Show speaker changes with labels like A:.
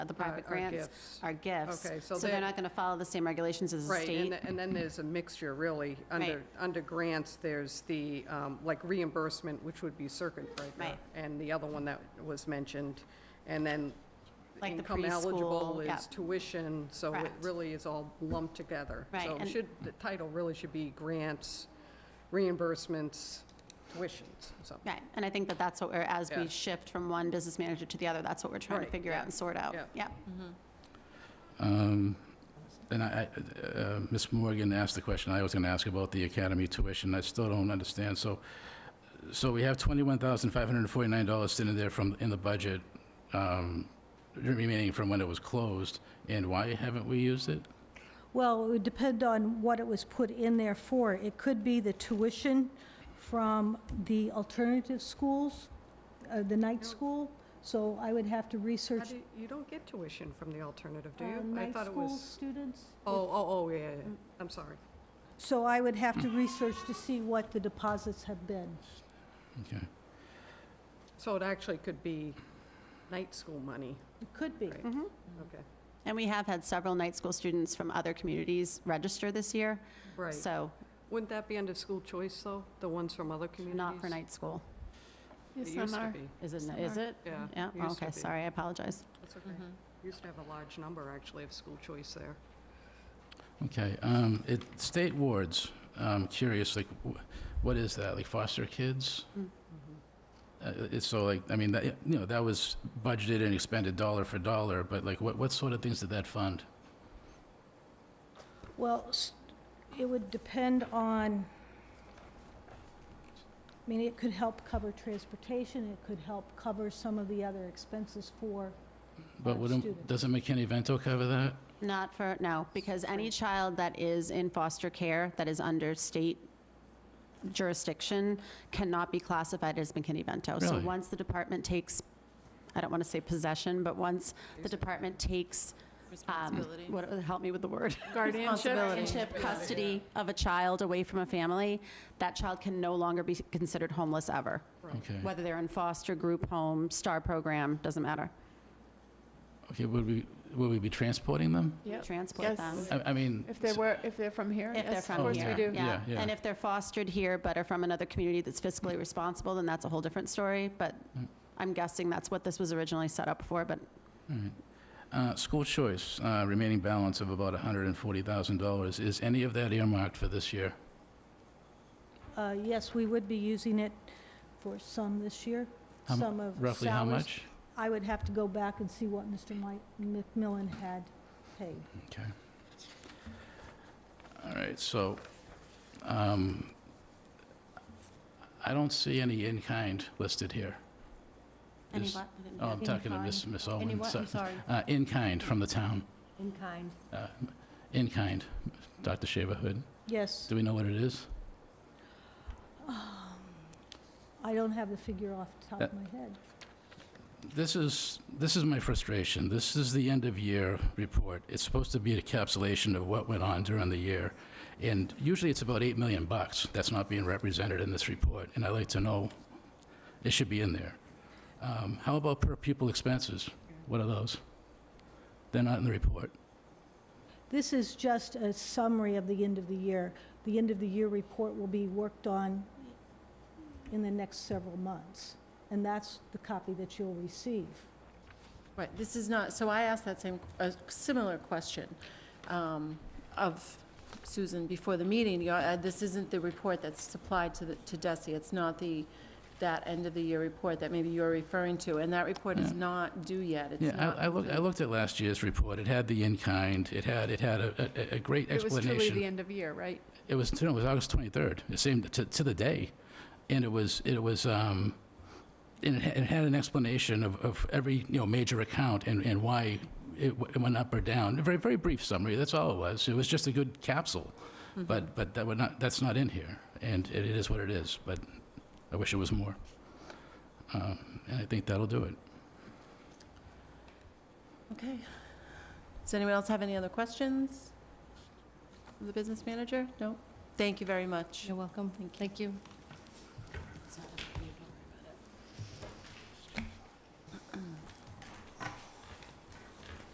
A: uh, the private
B: our
A: grants
B: gifts.
A: are gifts.
B: Okay, so
A: they're
B: that-
A: not going to follow the same regulations as the
B: Right, and
A: state.
B: th- and then there's a mixture, really. Under,
A: Right.
B: under grants, there's the, um, like reimbursement, which would be circuit breaker.
A: Right.
B: And the other one that was mentioned, and then
A: Like the
B: income eligible
A: preschool, yeah.
B: is tuition, so it
A: Correct.
B: really is all lumped together.
A: Right,
B: So it
A: and-
B: should, the title really should be grants, reimbursements, tuitions, so.
A: Right, and I think that that's what we're, as we
B: Yeah.
A: shift from one business manager to the other, that's what we're trying to
B: Right,
A: figure out
B: yeah,
A: and sort out.
B: yeah.
A: Yeah,
C: Um, And I, I- uh, Ms. Morgan asked the question I was going to ask about the academy tuition. I still don't understand. So, so we have $21,549 sitting there from, in the budget, um, remaining from when it was closed, and why haven't we used it?
D: Well, it would depend on what it was put in there for. It could be the tuition from the alternative schools, uh, the night school, so I would have to
B: How
D: research
B: do- You don't get tuition from the alternative, do
D: uh,
B: you? I
D: night
B: thought it
D: school
B: was.
D: students.
B: Oh, oh, oh, yeah, yeah, yeah. I'm sorry.
D: So I would have to research to see what the deposits have been.
C: Okay.
B: So it actually could be night school money,
D: It could be.
B: Right.
A: Mhm.
B: okay.
A: and we have had several night school students from other communities register this year,
B: Right.
A: so
B: Wouldn't that be under school choice, though? The ones from other communities?
A: not for night school.
B: It used to be,
A: Is it, is
E: Summer.
A: it?
B: yeah.
A: Yeah, Mm-hmm.
B: it used to
A: okay,
B: be.
A: sorry, I apologize.
B: That's okay. Used to have a large number, actually, of school choice there.
C: Okay, um, it, state wards, I'm curious, like, wh- what is that, like foster kids?
A: Mm.
C: Uh, It's so like, I mean, that, you know, that was budgeted and expended dollar for dollar, but like, what, what sort of things did that fund?
D: Well, s- it would depend on, I mean, it could help cover transportation, it could help cover some of the other expenses for
C: But
D: our
C: wouldn't,
D: students.
C: doesn't McKinney-Vento cover that?
A: Not for, no, because any child that is in foster care that is under state jurisdiction cannot be classified as McKinney-Vento. So
C: Really?
A: once the department takes, I don't want to say possession, but once the department takes, um,
E: Responsibility.
A: what, help me with the word?
E: Guardianship.
A: Um, Guardianship, custody of a child away from a family, that child can no longer be considered homeless ever.
C: Okay,
A: Whether they're in foster, group home, STAR program, doesn't matter.
C: okay, would we, would we be transporting them?
E: Yep.
A: Transport
E: Yes.
A: them.
C: I, I mean.
E: If they were, if they're from here?
A: If they're
E: yes,
B: Oh,
A: from here.
C: yeah,
E: Of course we do.
A: Yeah,
C: yeah.
A: and if they're fostered here but are from another community that's fiscally responsible, then that's a whole different story. But
C: Mm.
A: I'm guessing that's what this was originally set up for, but
C: all right. Uh, school choice, uh, remaining balance of about hundred and forty thousand dollars, is any of that earmarked for this year?
D: Uh, Yes, we would be using it for some this year,
C: How mu-
D: some of salaries.
C: Roughly how much?
D: I would have to go back and see what Mr. Mike McMillan had paid.
C: Okay. All right, so, um, I don't see any in-kind listed here.
A: any
C: Is-
A: what? I didn't
C: Oh,
A: hear.
C: I'm talking to Miss Miss Owen.
F: Any what?
C: so-
F: I'm sorry.
C: uh, In-kind from the town,
F: In kind.
C: uh, in-kind, Dr. Shaverhood.
D: Yes, Um,
C: Do we know what it is?
D: I don't have the figure off the
C: Uh,
D: top of my head.
C: This is, this is my frustration. This is the end-of-year report. It's supposed to be a encapsulation of what went on during the year. And usually it's about 8 million bucks that's not being represented in this report, and I'd like to know, it should be in there. Um, How about per pupil expenses? What are those? They're not in the report.
D: This is just a summary of the end of the year. The end of the year report will be worked on in the next several months, and that's the copy that you'll receive.
F: Right, this is not, so I asked that same, a similar question um, of Susan before the meeting. You know, uh, This isn't the report that's supplied to the, to Desi. It's not the, that end-of-the-year report that maybe you're referring to, and that report is not due yet. It's
C: Yeah,
F: not
C: I- I looked, I looked at last year's report. It had the in-kind, it had, it had a- a, a great
E: It was truly the
C: explanation.
E: end of year, right?
C: It was, no, it was August 23rd. It seemed to, to the day. And it was, it was, um, and it had, it had an explanation of, of every, you know, major account and, and why it w- it went up or down. A very, very brief summary, that's all it was. It was just a good capsule. But, but that would not, that's not in here. And it it is what it is, but I wish it was more. Um, And I think that'll do it.
F: Okay. Does anyone else have any other questions? of The business manager? No? Thank you very much.
G: You're welcome.
F: Thank you.
G: Thank you.